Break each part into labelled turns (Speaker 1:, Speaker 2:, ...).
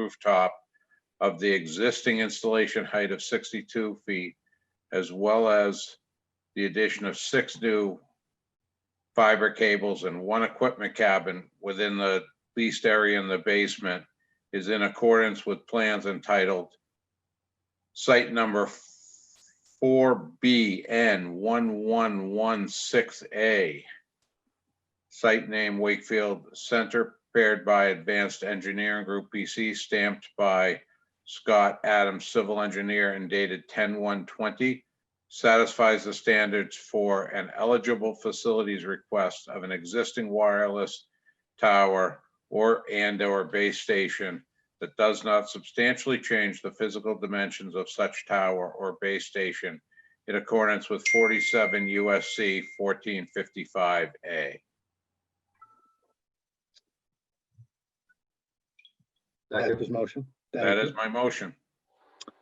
Speaker 1: rooftop of the existing installation height of 62 feet, as well as the addition of six new fiber cables and one equipment cabin within the leased area in the basement is in accordance with plans entitled site number 4BN1116A. Site name Wakefield Center, prepared by Advanced Engineering Group PC, stamped by Scott Adams, civil engineer, and dated 10/1/20, satisfies the standards for an eligible facilities request of an existing wireless tower or and/or base station that does not substantially change the physical dimensions of such tower or base station in accordance with 47 USC 1455A.
Speaker 2: That
Speaker 3: Second,
Speaker 2: was motion. Thank
Speaker 1: That
Speaker 2: you.
Speaker 1: is my motion.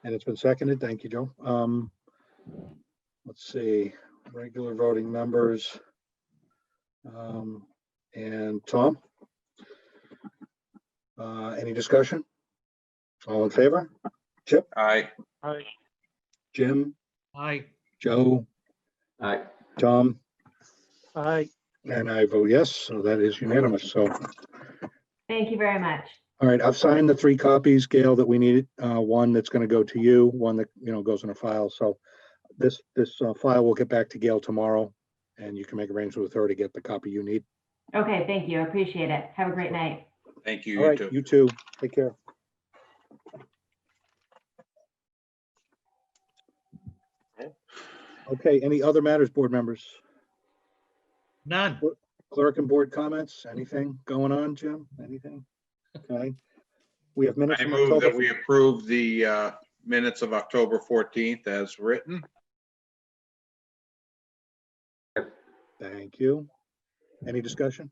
Speaker 2: And it's been seconded. Thank you, Joe. Um, let's see, regular voting members. Um, and Tom? Uh, any discussion? All in favor?
Speaker 1: Aye.
Speaker 4: Aye.
Speaker 2: Jim,
Speaker 4: Aye.
Speaker 2: Joe,
Speaker 3: aye,
Speaker 2: Tom,
Speaker 4: Aye.
Speaker 2: and I vote yes, so that is unanimous. So,
Speaker 5: Thank you very much.
Speaker 2: all right, I've signed the three copies, Gail, that we needed. Uh, one that's gonna go to you, one that, you know, goes in a file, so this, this uh, file will get back to Gail tomorrow, and you can make arrangements with her to get the copy you need.
Speaker 5: Okay, thank you. Appreciate it. Have a great night.
Speaker 1: Thank you,
Speaker 2: All
Speaker 1: you
Speaker 2: right,
Speaker 1: two.
Speaker 2: you too. Take care. Okay, any other matters, board members?
Speaker 4: None.
Speaker 2: Clerk and board comments? Anything going on, Jim? Anything? Okay. We have minutes.
Speaker 1: I
Speaker 2: from
Speaker 1: move that
Speaker 2: October-
Speaker 1: we approve the uh, minutes of October 14th as written.
Speaker 2: Thank you. Any discussion?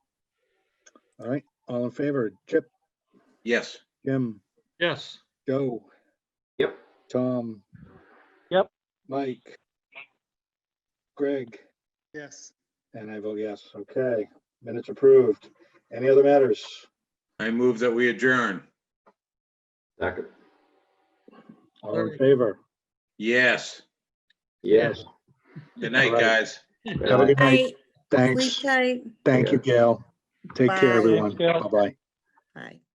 Speaker 2: All right, all in favor? Chip,
Speaker 1: Yes.
Speaker 2: Jim,
Speaker 4: Yes.
Speaker 2: Joe,
Speaker 3: yep,
Speaker 2: Tom?
Speaker 4: Yep.
Speaker 2: Mike? Greg?
Speaker 4: Yes.
Speaker 2: And I vote yes. Okay, minutes approved. Any other matters?
Speaker 1: I move that we adjourn.
Speaker 3: second,
Speaker 2: All in
Speaker 4: Alright.
Speaker 2: favor?
Speaker 1: Yes.
Speaker 3: yes.
Speaker 1: Good night,
Speaker 2: All right.
Speaker 1: guys.
Speaker 2: Have a good night.
Speaker 6: Night. Sleep
Speaker 2: Thanks.
Speaker 6: tight.
Speaker 2: Thank you, Gail. Take care,
Speaker 6: Bye.
Speaker 2: everyone.
Speaker 4: Thanks, Gail.
Speaker 2: Bye-bye.
Speaker 6: Bye.